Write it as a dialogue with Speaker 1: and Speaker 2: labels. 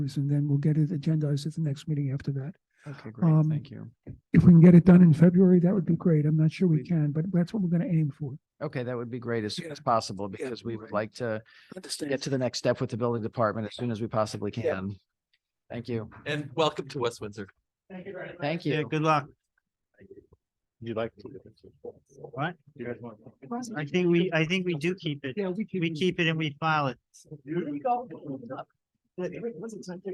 Speaker 1: and then we'll get it agendized at the next meeting after that.
Speaker 2: Okay,
Speaker 1: Um,
Speaker 2: great. Thank you.
Speaker 1: If we can get it done in February, that would be great. I'm not sure we can, but that's what we're going to aim for.
Speaker 2: Okay, that would be great as soon
Speaker 1: yeah,
Speaker 2: as possible
Speaker 1: yeah,
Speaker 2: because we would
Speaker 1: right.
Speaker 2: like to get
Speaker 1: Understand.
Speaker 2: to the next step with the building department as soon as we possibly can. Thank you.
Speaker 3: And welcome to West Windsor.
Speaker 2: Thank
Speaker 4: Yeah,
Speaker 2: you.
Speaker 4: good luck.
Speaker 3: You like.
Speaker 4: What? I think we, I think we do keep it.
Speaker 1: Yeah, we keep.
Speaker 4: We keep it and we file it.